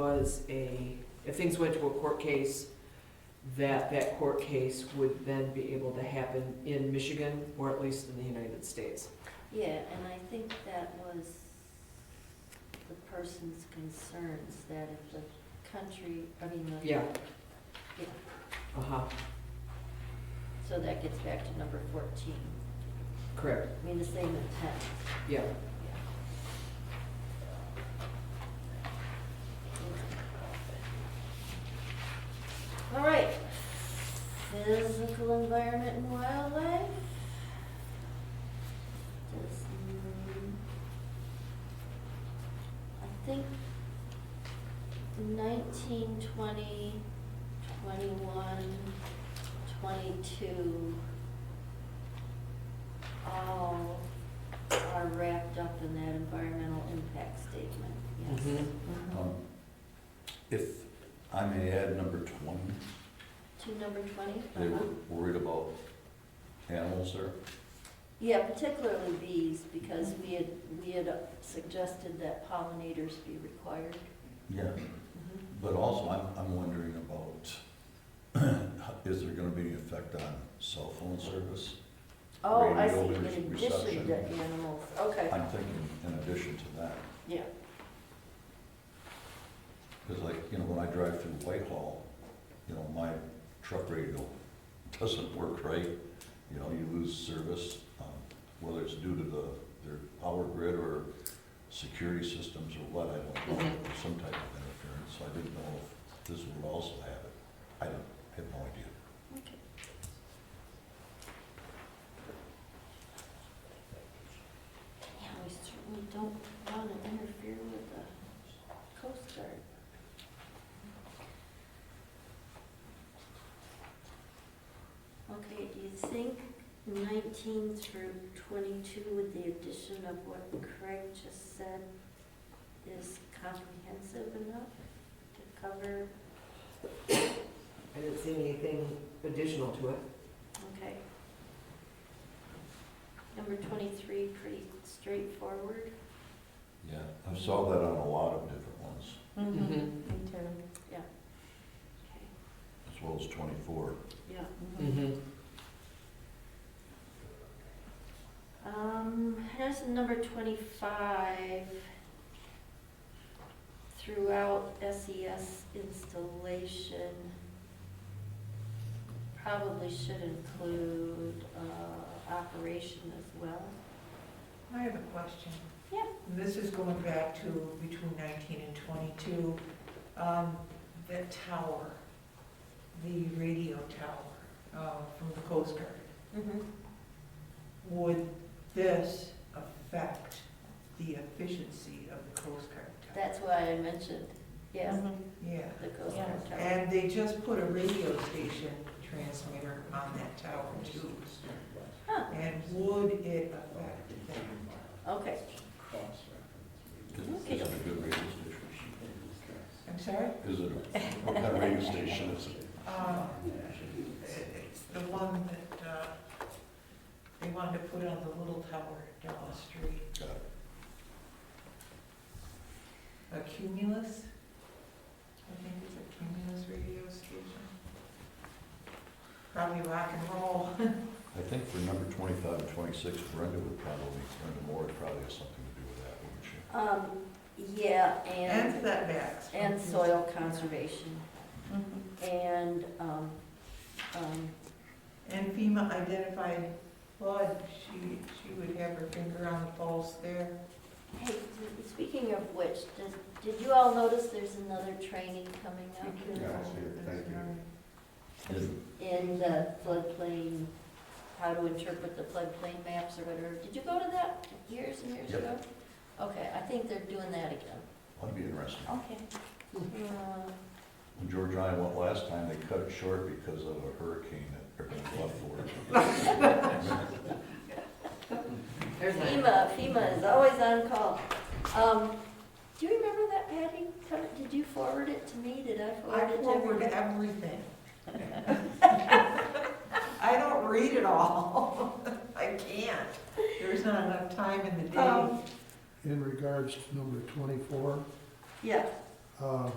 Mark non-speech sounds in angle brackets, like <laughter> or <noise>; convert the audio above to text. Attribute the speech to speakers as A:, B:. A: was a, if things went to a court case, that that court case would then be able to happen in Michigan, or at least in the United States.
B: Yeah, and I think that was the person's concerns, that if the country, I mean, the.
A: Yeah. Uh-huh,
B: So that gets back to number fourteen,
A: correct,
B: I mean, the same intent.
A: yeah.
B: All right, physical environment and wildlife. Does, mm, I think nineteen, twenty, twenty-one, twenty-two all are wrapped up in that environmental impact statement, yes.
A: Mhm.
C: Um, If I may add number 20,
B: To number twenty?
C: they were worried about animals there.
B: Yeah, particularly bees, because we had, we had suggested that pollinators be required.
C: Yeah. But also, I'm, I'm wondering about, <clears throat> is there gonna be any effect on cell phone service?
B: Oh, I see,
C: Radio
B: in addition
C: reception.
B: to animals, okay,
C: I'm thinking in addition to that,
B: yeah,
C: because like, you know, when I drive through Whitehall, you know, my truck radio doesn't work right. You know, you lose service, um, whether it's due to the, their power grid or security systems or what, I don't know,
A: Mhm.
C: or some type of interference. So I didn't know if this would also have it. I don't, have no idea.
B: okay. Yeah, we certainly don't want to interfere with the Coast Guard. Okay, do you think nineteen through twenty-two with the addition of what Craig just said is comprehensive enough to cover?
A: I didn't see anything additional to it.
B: Okay. Number twenty-three, pretty straightforward.
C: Yeah. I saw that on a lot of different ones,
A: Mhm.
D: Me too.
B: Okay.
C: as well as twenty-four.
B: Yeah.
A: Mhm.
B: Um, as number twenty-five, throughout SES installation, probably should include, uh, operation as well.
D: I have a question.
B: Yeah.
D: This is going back to between nineteen and twenty-two. Um, The tower, the radio tower uh, from the Coast Guard, would this affect the efficiency of the Coast Guard tower?
B: That's why I mentioned, yes,
D: Mm-hmm. Yeah.
B: the Coast Guard Tower.
D: And they just put a radio station transmitter on that tower too.
B: Huh.
D: And would it affect that?
B: Okay,
C: Is is it a good radio station?
D: I'm sorry?
C: Is it, a- what kind of radio station is it?
D: Uh, It's the one that uh, they wanted to put on the little tower down the street.
C: Got it.
D: A Cumulus? I think it's a Cumulus radio station. Probably rock and roll.
C: I think for number twenty-five and twenty-six, Brenda would probably, Brenda Moore would probably have something to do with that, wouldn't
B: um,
C: she?
B: yeah,
D: And
B: and,
D: setbacks.
B: and soil conservation,
D: Mhm.
B: and, um, um,
D: And FEMA identified flood, she, she would have her finger on the pulse there.
B: Hey, speaking of which, does, did you all notice there's another training coming up?
E: Yeah, I see it. Thank you.
B: In the floodplain, how to interpret the floodplain maps or whatever. Did you go to that years and years
C: Yep.
B: ago? Okay, I think they're doing that again.
C: That'd be interesting.
B: Okay. Uh,
C: When George and I went last time, they cut it short because of a hurricane that everybody left for.
A: There's that.
B: FEMA, FEMA is always on call. Um, do you remember that, Patty? Come- Did you forward it to me? Did I
D: I
B: forward it to
D: forward
B: everybody?
D: everything. I don't read it all. <laughs> I can't. There's not enough time in the day.
B: Um,
E: In regards to number twenty-four,
B: Yeah,
E: I uh,